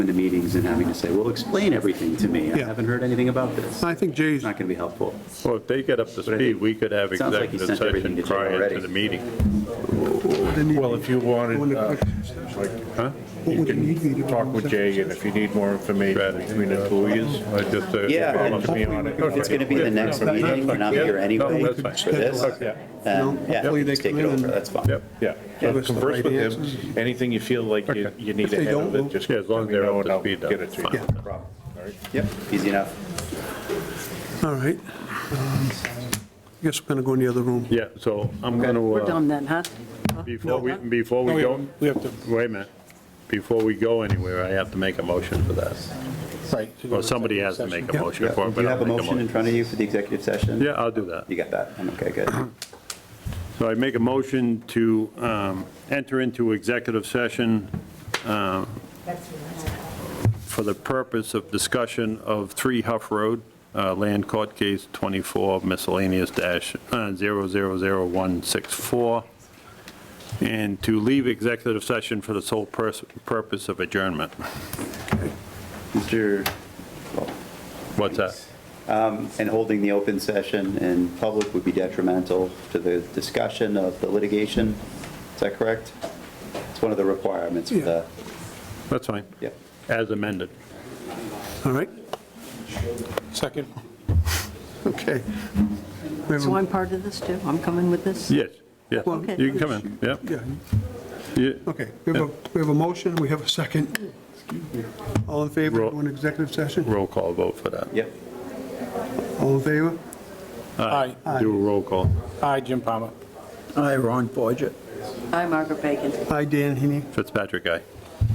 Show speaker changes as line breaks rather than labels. into meetings and having to say, well, explain everything to me. I
Yeah.
haven't heard anything about this.
I
It's
think Jay's,
not going to be helpful.
Well, if they get up to speed, we could have
Sounds like he
executive
sent everything
session
to Jim
prior
already.
to the meeting.
Well, if you wanted, uh,
Huh?
you can talk with Jay, and if you need more information between the two of yous,
I just, uh,
Yeah,
follow
and
me on it.
It's going to be the next meeting, and I'm here anyway
No,
for
that's
fine.
this.
Okay.
And, yeah,
Hopefully
we
they
can take
come
it
in
over,
and-
that's fine.
Yep,
yeah.
Yeah, that's the
Converse
right
with
answer.
him, anything you feel like you
Okay.
you need
If they
ahead
don't,
of
we'll-
it, just.
Yeah, as long
let
as
me
they're
know
up
and
to
I'll
speed,
Get it
that's
to you.
fine.
No problem. All right.
Yep, easy enough.
all right. Um, I guess we're going to go in the other room.
yeah, so I'm uh, going
We're
to,
done then, huh?
before we, before we go,
We have to.
wait a minute. Before we go anywhere, I have to make a motion for that.
Right.
Or somebody has to make a
Yeah.
motion for it,
Do
but
you have
I'll
a
make a
motion in
motion.
front of you for the executive session?
Yeah, I'll do that.
You got that? I'm okay, good.
Uh-huh.
So I make a motion to um, enter into executive session um, for the purpose of discussion of 3 Huff Road, uh, land court case 24 miscellaneous dash uh, 000164, and to leave executive session for the sole pers- purpose of adjournment.
Mr. well,
What's that?
And holding the open session in public would be detrimental to the discussion of the litigation. Is that correct? It's one of the requirements for the,
That's fine.
yep.
As amended.
All right,
Second.
okay. We have a-
So I'm part of this too? I'm coming with this?
Yes, yes.
Well-
You can come in, yeah.
Yeah,
Yeah.
okay. We have a, we have a motion, we have a second. All in favor,
Roll-
of an executive session?
Roll call vote for that.
Yep.
All in favor?
Aye. Do a roll call.
Hi, Jim Palmer.
Hi, Ron Forget.
I'm Margaret Bacon.
Aye, Dan Heaney.
Fitzpatrick, aye.